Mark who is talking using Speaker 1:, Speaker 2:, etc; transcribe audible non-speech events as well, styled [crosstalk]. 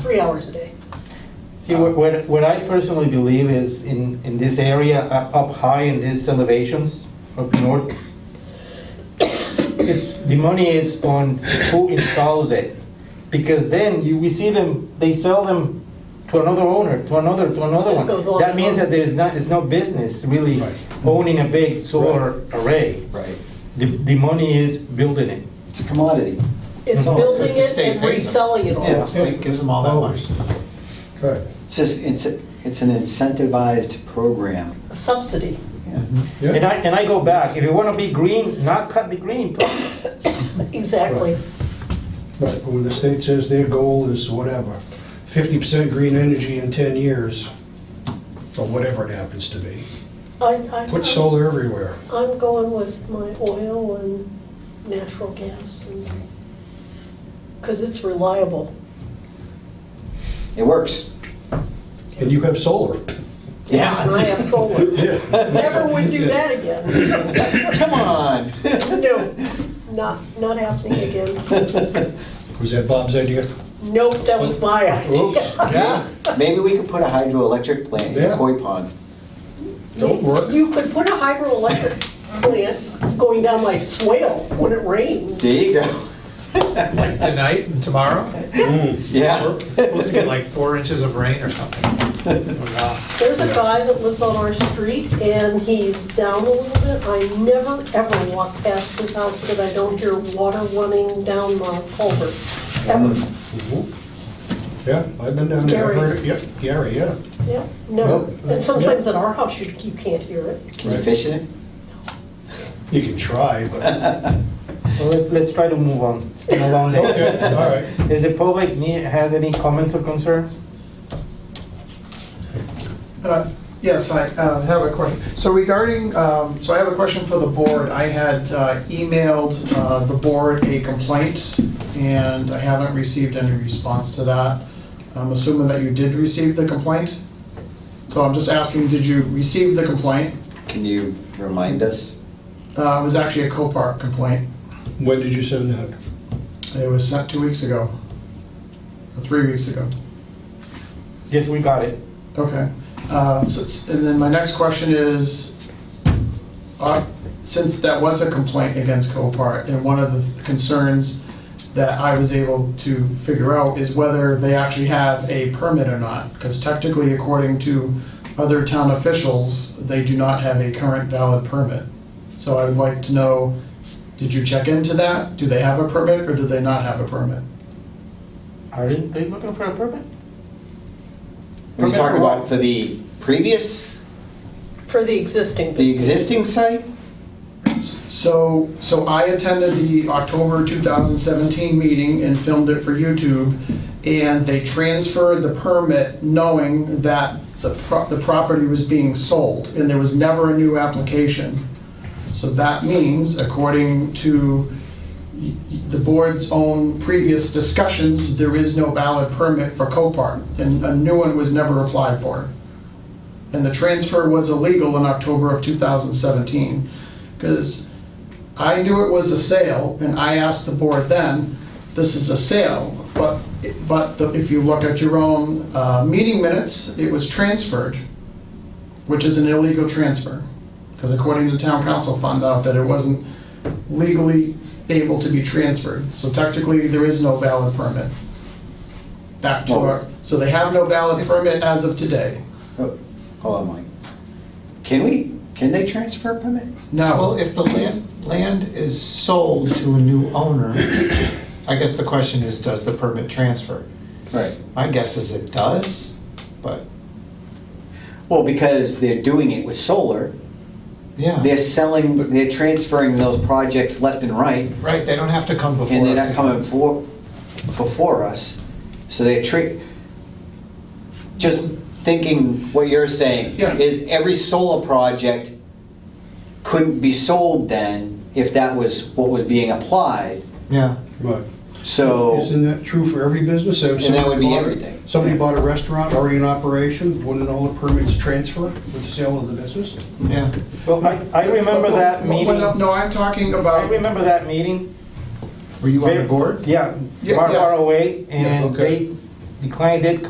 Speaker 1: three hours a day.
Speaker 2: See, what, what- what I personally believe is in, in this area, up up high in these elevations up north, it's, the money is on who installs it. Because then you, we see them, they sell them to another owner, to another, to another
Speaker 1: Just goes
Speaker 2: one.
Speaker 1: on
Speaker 2: That
Speaker 1: and
Speaker 2: means
Speaker 1: on.
Speaker 2: that there's not, it's no business really
Speaker 3: Right.
Speaker 2: owning a big solar array.
Speaker 3: Right.
Speaker 2: The, the money is building it.
Speaker 3: It's a commodity.
Speaker 1: It's
Speaker 4: Mm-hmm.
Speaker 2: Mhm.
Speaker 1: building
Speaker 5: Because the
Speaker 1: it
Speaker 5: state
Speaker 1: and
Speaker 5: pays them.
Speaker 1: reselling it
Speaker 3: Yeah.
Speaker 1: all.
Speaker 5: The state gives them all that money.
Speaker 4: Good.
Speaker 3: It's just, it's, a- it's an incentivized program.
Speaker 1: A subsidy.
Speaker 3: Yeah.
Speaker 2: And
Speaker 4: Yeah,
Speaker 2: I, and I go back, if you wanna be green, not cut the green part.
Speaker 1: Exactly.
Speaker 4: right, when the state says their goal is whatever, fifty percent green energy in ten years, or whatever it happens to be,
Speaker 1: I, I,
Speaker 4: put solar everywhere.
Speaker 1: I'm going with my oil and natural gas and, because it's reliable.
Speaker 3: It works.
Speaker 4: And you have solar.
Speaker 1: And I have
Speaker 4: [laughs]
Speaker 1: solar. Never would do that again.
Speaker 3: Come on.
Speaker 1: No, not, not happening again.
Speaker 4: Was that Bob's idea?
Speaker 1: Nope, that was my
Speaker 4: Oops,
Speaker 1: idea.
Speaker 4: yeah,
Speaker 3: Maybe we could put a hydroelectric plant in
Speaker 4: Yeah.
Speaker 3: a koi pond.
Speaker 4: don't work.
Speaker 1: You could put a hydroelectric plant going down my swale when it rains.
Speaker 3: There you go.
Speaker 5: Like tonight and tomorrow,
Speaker 4: Mm.
Speaker 3: Yeah.
Speaker 5: supposed to get like four inches of rain or something. Wow.
Speaker 1: There's a guy that lives on our street and he's down a little bit. I never, ever walk past his house that I don't hear water running down the culvert, ever.
Speaker 4: Mhm. Yeah, I've been down there, I've heard it. yep, Gary, yeah.
Speaker 1: Yeah, never.
Speaker 4: Nope.
Speaker 1: And sometimes at our house, you, you can't hear it.
Speaker 3: Can you fish in it?
Speaker 4: You can try, [laughs] but,
Speaker 2: Well, let- Let's try to move on. It's been a long day.
Speaker 4: okay, all right.
Speaker 2: Is the public need, has any comments or concerns?
Speaker 6: Uh, Yes, I uh, have a question. So regarding, um, so I have a question for the board. I had uh, emailed uh, the board a complaint, and I haven't received any response to that. I'm assuming that you did receive the complaint? So I'm just asking, did you receive the complaint?
Speaker 3: Can you remind us?
Speaker 6: Uh, It was actually a Copart complaint.
Speaker 4: When did you send that?
Speaker 6: It was sent two weeks ago, or three weeks ago.
Speaker 2: Yes, we got it.
Speaker 6: Okay, Uh, s- s- and then my next question is, uh, since that was a complaint against Copart, and one of the concerns that I was able to figure out is whether they actually have a permit or not, because technically, according to other town officials, they do not have a current valid permit. So I would like to know, did you check into that? Do they have a permit, or do they not have a permit?
Speaker 2: Aren't they looking for a permit?
Speaker 3: Are you
Speaker 2: Permit
Speaker 3: talking
Speaker 2: for what?
Speaker 3: about for the previous,
Speaker 1: For the existing
Speaker 3: the
Speaker 1: business.
Speaker 3: existing site?
Speaker 6: So, so I attended the October 2017 meeting and filmed it for YouTube, and they transferred the permit knowing that the, pro- the property was being sold, and there was never a new application. So that means, according to y- y- the board's own previous discussions, there is no valid permit for Copart, and a new one was never applied for. And the transfer was illegal in October of 2017, because I knew it was a sale, and I asked the board then, this is a sale, but, but the- if you look at your own uh, meeting minutes, it was transferred, which is an illegal transfer, because according to town council, found out that it wasn't legally able to be transferred, so technically, there is no valid permit. Back to our, so they have no valid permit as of today,
Speaker 3: Oh, Hold on, Mike. Can we, can they transfer a permit?
Speaker 5: [laughs]
Speaker 6: no.
Speaker 5: Well, if the land, land is sold to a new owner, I guess the question is, does the permit transfer?
Speaker 3: Right.
Speaker 5: My guess is it does, but,
Speaker 3: Well, because they're doing it with solar,
Speaker 5: yeah,
Speaker 3: they're selling, they're transferring those projects left and right,
Speaker 5: right, they don't have to come before us.
Speaker 3: and they're not coming for, before us, so they're tre just thinking what you're saying,
Speaker 6: Yeah.
Speaker 3: is every solar project couldn't be sold then if that was what was being applied,
Speaker 5: Yeah.
Speaker 4: Right.
Speaker 3: so,
Speaker 4: Isn't that true for every business? So
Speaker 3: And that would be
Speaker 4: somebody bought-
Speaker 3: everything.
Speaker 4: Somebody bought a restaurant already in operation, wouldn't all the permits transfer with the sale of the business?
Speaker 5: Yeah,
Speaker 2: Well, I, I remember that
Speaker 6: Well,
Speaker 2: meeting.
Speaker 6: well, No, I'm talking about.
Speaker 2: I remember that meeting.
Speaker 5: were you on the
Speaker 2: Very-
Speaker 5: board?
Speaker 2: Yeah,
Speaker 6: Yeah,
Speaker 2: far,
Speaker 6: yes.
Speaker 2: far away, and
Speaker 4: okay.
Speaker 2: they, decline did